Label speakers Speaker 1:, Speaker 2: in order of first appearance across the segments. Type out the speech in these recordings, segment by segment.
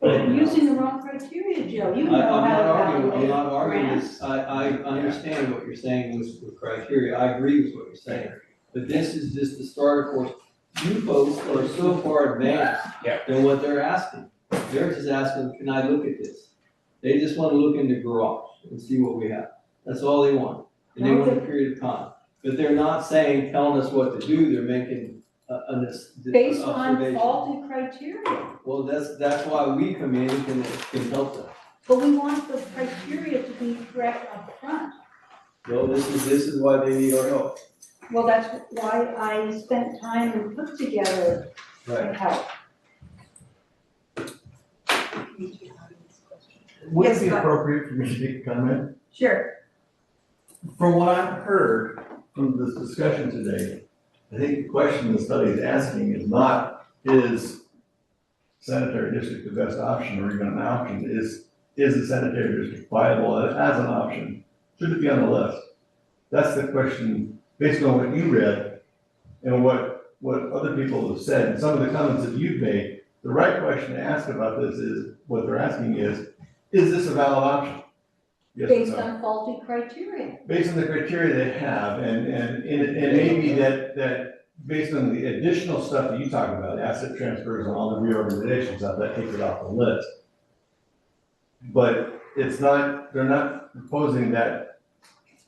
Speaker 1: But
Speaker 2: Well,
Speaker 1: using the wrong criteria, Joe,
Speaker 2: I, I'm
Speaker 1: you know how to
Speaker 2: not arguing, I'm
Speaker 1: evaluate
Speaker 2: not arguing
Speaker 1: grants.
Speaker 2: this, I, I understand what you're saying with, with criteria, I agree with what you're saying. But this is just the starter course, you folks are so far advanced
Speaker 3: Yeah.
Speaker 2: than what they're asking. They're just asking, can I look at this? They just wanna look in the garage and see what we have, that's all they want, and they want a period of time. But they're not saying, telling us what to do, they're making a, an obs-
Speaker 1: Based on
Speaker 2: observation.
Speaker 1: faulty criteria,
Speaker 2: Well, that's, that's why we come in and can, can help them.
Speaker 1: but we want the criteria to be correct up front.
Speaker 2: No, this is, this is why they need our help.
Speaker 1: Well, that's why I spent time and put together the help.
Speaker 4: Would
Speaker 1: Yes,
Speaker 4: it be
Speaker 1: but-
Speaker 4: appropriate for me to make a comment?
Speaker 1: Sure,
Speaker 4: From what I've heard from this discussion today, I think the question the study is asking is not, is sanitary district the best option or even an option? Is, is the sanitary district viable as an option? Should it be on the list? That's the question, based on what you read and what, what other people have said, and some of the comments that you've made, the right question to ask about this is, what they're asking is, is this a valid option? Yes or
Speaker 1: based
Speaker 4: no?
Speaker 1: on faulty criteria.
Speaker 4: based on the criteria they have, and, and, and and maybe that, that, based on the additional stuff that you talk about, asset transfers and all the reorganization stuff, that takes it off the list. But it's not, they're not proposing that,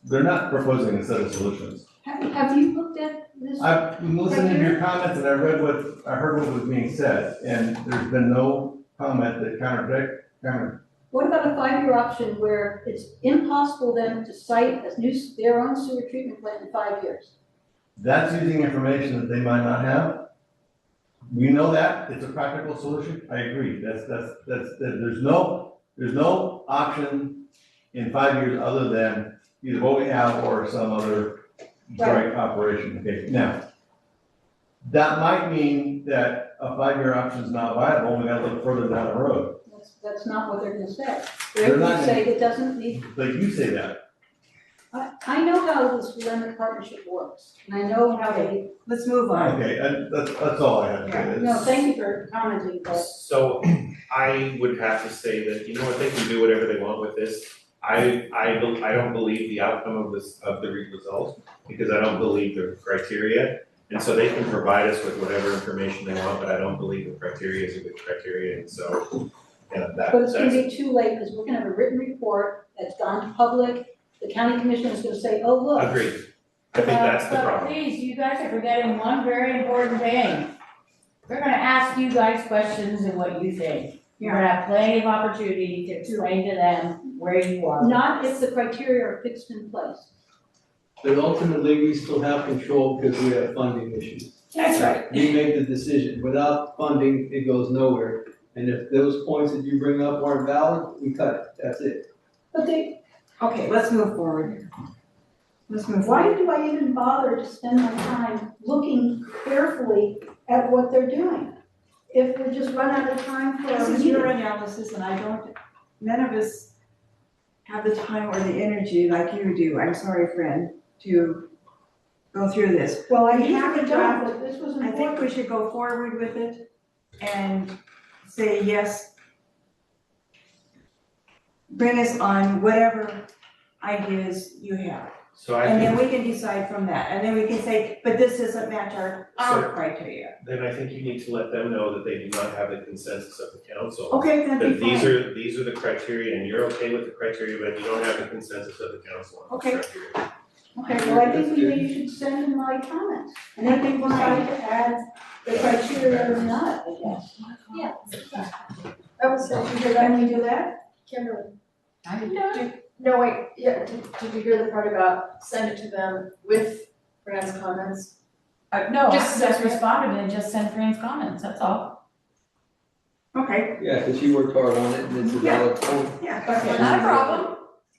Speaker 4: they're not proposing a set of solutions.
Speaker 1: Have, have you looked at this?
Speaker 4: I've been listening to your comments and I read what, I heard what was being said, and there's been no comment that contradict, counter,
Speaker 1: What about a five-year option where it's impossible then to cite as new, their own sewer treatment plant in five years?
Speaker 4: that's using information that they might not have. We know that, it's a practical solution, I agree, that's, that's, that's, that- there's no, there's no option in five years other than either what we have or some other joint operation, okay, now. That might mean that a five-year option is not viable, we gotta look further down the road,
Speaker 1: That's, that's not what they're gonna say.
Speaker 4: They're
Speaker 1: They're
Speaker 4: not
Speaker 1: gonna
Speaker 4: gonna-
Speaker 1: say it doesn't need,
Speaker 4: but you say that,
Speaker 1: I, I know how this limited partnership works, and I know how they,
Speaker 5: Let's move on.
Speaker 4: okay, and that's, that's all I have to say.
Speaker 1: no, thank you for commenting, but
Speaker 3: So I would have to say that, you know what, they can do whatever they want with this. I, I don't, I don't believe the outcome of this, of the result, because I don't believe the criteria. And so they can provide us with whatever information they want, but I don't believe the criteria is a good criteria, and so, yeah, that,
Speaker 1: But it's gonna be
Speaker 3: that's,
Speaker 1: too late, because we're gonna have a written report that's gone to public, the county commissioner is gonna say, oh, look.
Speaker 3: agreed. I think that's the
Speaker 6: Uh, but
Speaker 3: problem.
Speaker 6: Please, you guys are forgetting one very important thing. We're gonna ask you guys questions and what you think. You're gonna have plenty of opportunity to explain to them where you are.
Speaker 1: Not if the criteria are fixed in place.
Speaker 2: But ultimately, we still have control because we have funding issues.
Speaker 6: That's right.
Speaker 2: We make the decision. Without funding, it goes nowhere. And if those points that you bring up aren't valid, we cut it. That's it.
Speaker 1: But they,
Speaker 5: Okay, let's move forward. Let's move
Speaker 1: why
Speaker 5: forward.
Speaker 1: do I even bother to spend my time looking carefully at what they're doing? If we just run out of time for
Speaker 5: This
Speaker 1: a
Speaker 5: is your
Speaker 1: meeting.
Speaker 5: analysis and I don't, none of us have the time or the energy like you do, I'm sorry, friend, to go through this.
Speaker 1: Well, I
Speaker 5: You
Speaker 1: have a
Speaker 5: haven't
Speaker 1: job,
Speaker 5: done-
Speaker 1: but this was
Speaker 5: I think
Speaker 1: important.
Speaker 5: we should go forward with it and say yes. Bring us on whatever ideas you have.
Speaker 3: So I
Speaker 5: And
Speaker 3: think
Speaker 5: then we can decide from that. And then we can say, but this doesn't match our, our criteria.
Speaker 3: then I think you need to let them know that they do not have the consensus of the council.
Speaker 5: Okay, that'd
Speaker 3: That
Speaker 5: be fine.
Speaker 3: these are, these are the criteria, and you're okay with the criteria, but you don't have the consensus of the council on
Speaker 5: Okay.
Speaker 3: this criteria.
Speaker 1: Okay, well, I think maybe you should send in my comments, and then we will try to add the criteria or not, I guess. Yeah. That was, did you hear that? Can we do that?
Speaker 7: Kimberly,
Speaker 6: I'm done.
Speaker 7: no, wait, yeah, did, did you hear the part about send it to them with Brad's comments?
Speaker 6: Uh, no, I
Speaker 7: Just-
Speaker 6: just responded and just sent Fran's comments, that's all.
Speaker 5: Okay.
Speaker 2: Yeah, because you worked hard on it and it's a valid point.
Speaker 5: Yeah,
Speaker 7: Okay.
Speaker 6: Not a problem.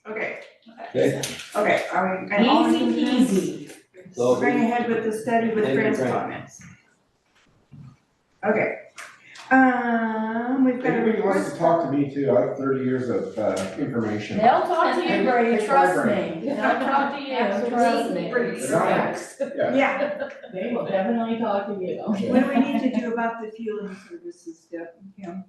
Speaker 5: okay,
Speaker 2: Okay?
Speaker 5: okay, are we, and all
Speaker 6: Easy
Speaker 5: in agreement?
Speaker 6: peasy.
Speaker 2: So-
Speaker 5: Bring ahead with the study with
Speaker 2: Thank you,
Speaker 5: Fred's
Speaker 2: Fran.
Speaker 5: comments. Okay, um, we've got a
Speaker 8: Anybody
Speaker 5: report.
Speaker 8: wants to talk to me too, I have thirty years of uh, information.
Speaker 6: They'll talk to you,
Speaker 7: And-
Speaker 6: Brady,
Speaker 8: and
Speaker 6: trust me.
Speaker 8: program.
Speaker 6: They'll talk to you,
Speaker 7: Absolutely.
Speaker 6: trust me.
Speaker 7: Brady's
Speaker 8: Right.
Speaker 7: facts.
Speaker 5: Yeah,
Speaker 6: They will definitely talk to you.
Speaker 5: what do we need to do about the fueling services, Deb? Yeah.